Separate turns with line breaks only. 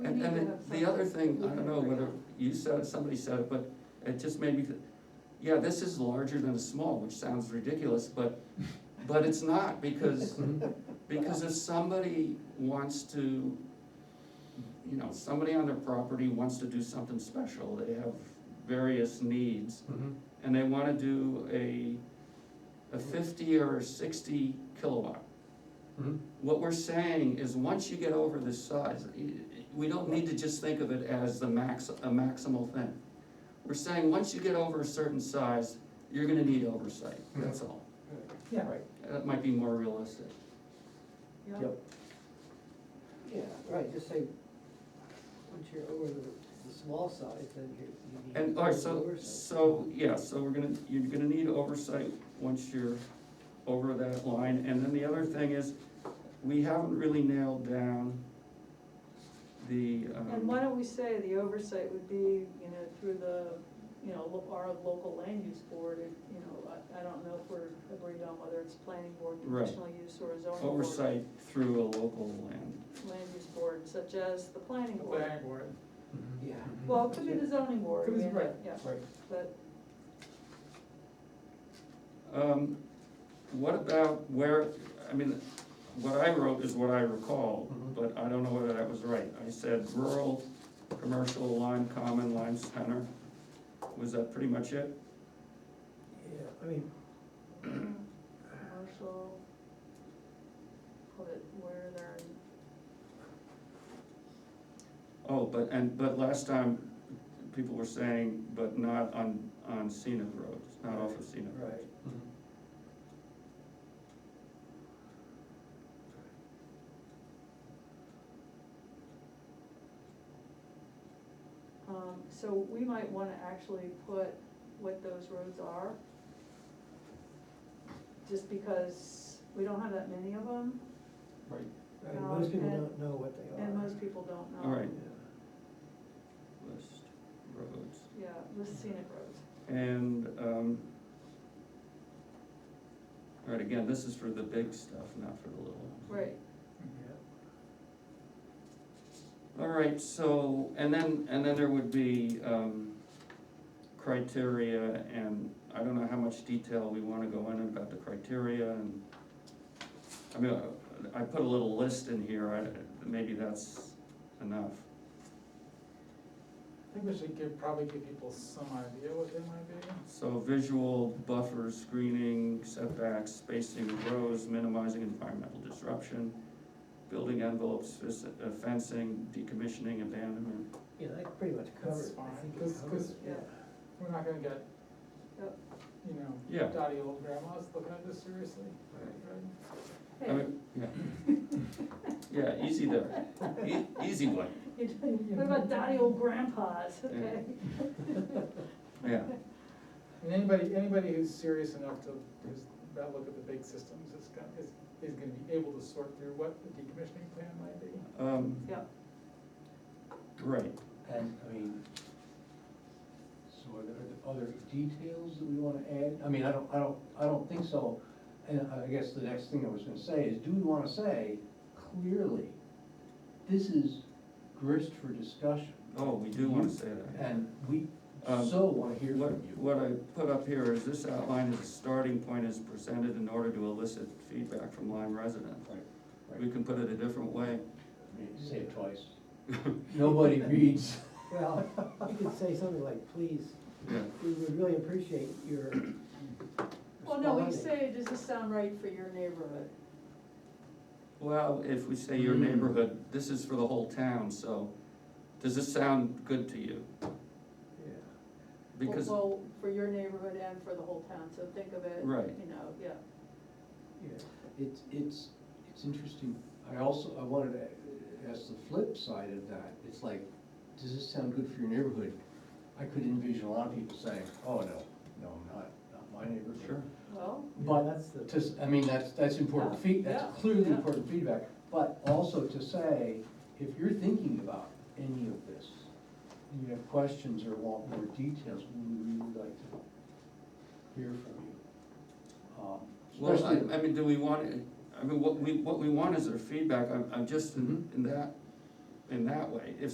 We
And,
need to
and
have
it- the other
something
thing,
we
I
can
don't know
agree
whether
on.
you said it, somebody said it, but it just made me, th- yeah, this is larger than a small, which sounds ridiculous, but, but it's not, because, because if somebody wants to, you know, somebody on their property wants to do something special, they have various needs,
Mm-hmm.
and they wanna do a, a fifty or a sixty kilowatt. What we're saying is, once you get over this size, y- y- we don't need to just think of it as the max, a maximal thing. We're saying, once you get over a certain size, you're gonna need oversight, that's all.
Yeah, right.
That might be more realistic.
Yeah.
Yep.
Yeah, right, just say, once you're over the, the small size, then you're, you need.
And, all right, so,
oversight.
so, yeah, so we're gonna, you're gonna need oversight once you're over that line. And then the other thing is, we haven't really nailed down the,
And why
um,
don't we say the oversight would be, you know, through the, you know, lo- our local land use board, if, you know, I, I don't know if we're agreed on whether it's planning board,
Right.
conditional use, or zoning board.
um, oversight through a local land.
Land use board, such as the planning
The
board.
planning board,
Yeah.
Well, it could be the zoning board,
Could be-
yeah,
right.
yeah,
Right.
but,
Um, what about where, I mean, what I wrote is what I recall,
Mhm.
but I don't know whether that was right. I said rural, commercial, Lime Common, Lime Center, was that pretty much it?
Yeah, I mean,
commercial, put it where they're,
Oh, but, and, but last time, people were saying, but not on, on scenic roads, not off of scenic roads.
Right,
um, so we might wanna actually put what those roads are. Just because we don't have that many of them,
Right.
right,
Um,
most people
and-
don't know what they are.
and most people don't know.
All right.
Yeah.
List roads,
Yeah, the scenic roads.
and, um, all right, again, this is for the big stuff, not for the little ones.
Right,
All right, so, and then, and then there would be, um, criteria, and I don't know how much detail we wanna go in about the criteria, and, I mean, I- I put a little list in here, I, maybe that's enough.
I think we should give, probably give people some idea what they might be.
So visual buffers, screening, setbacks, spacing of rows, minimizing environmental disruption, building envelopes, fis- uh, fencing, decommissioning, abandonment.
Yeah, that pretty much covers, it.
fine,
I think
cause-
it covers,
cause-
it, yeah.
We're not gonna get,
Yep.
you know,
Yeah.
dotty old grandmas looking at this seriously,
Right.
right?
I
hey,
mean, yeah. Yeah, easy there, E- easy one,
what about dotty old grandpas, okay?
yeah,
And anybody, anybody who's serious enough to, who's, about look at the big systems is gonna, is, is gonna be able to sort through what the decommissioning plan might be.
um,
Yeah,
right,
And, I mean, so are there, are there details that we wanna add? I mean, I don't, I don't, I don't think so. And I guess the next thing I was gonna say is, do we wanna say clearly, this is grist for discussion?
oh, we do wanna say that.
And we
Um,
so wanna hear
What,
from you.
what I put up here is this outline is a starting point is presented in order to elicit feedback from Lyme residents.
Right, right.
We can put it a different way.
I mean, Say it twice. Nobody reads.
Well, you could say something like, please,
Yeah,
we would really appreciate your
well, no, we
responding."
say, does this sound right for your neighborhood?
well, if we say your
Hmm.
neighborhood, this is for the whole town, so does this sound good to you?
Yeah.
Because,
Well, for your neighborhood and for the whole town, so think of it,
Right.
you know, yeah.
Yeah,
It's, it's, it's interesting. I also, I wanted to ask the flip side of that. It's like, does this sound good for your neighborhood? I could envision a lot of people saying, oh, no, no, not, not my neighborhood.
sure,
Well,
But
that's the.
To, s- I mean, that's, that's important feed,
Yeah,
that's clearly
yeah.
important feedback. But also to say, if you're thinking about any of this, and you have questions or want more details, we would really like to hear from you. Um,
well,
especially-
I, I mean, do we want, it- I mean, what we, what we want is their feedback, I'm, I'm just in, in that, in that way. If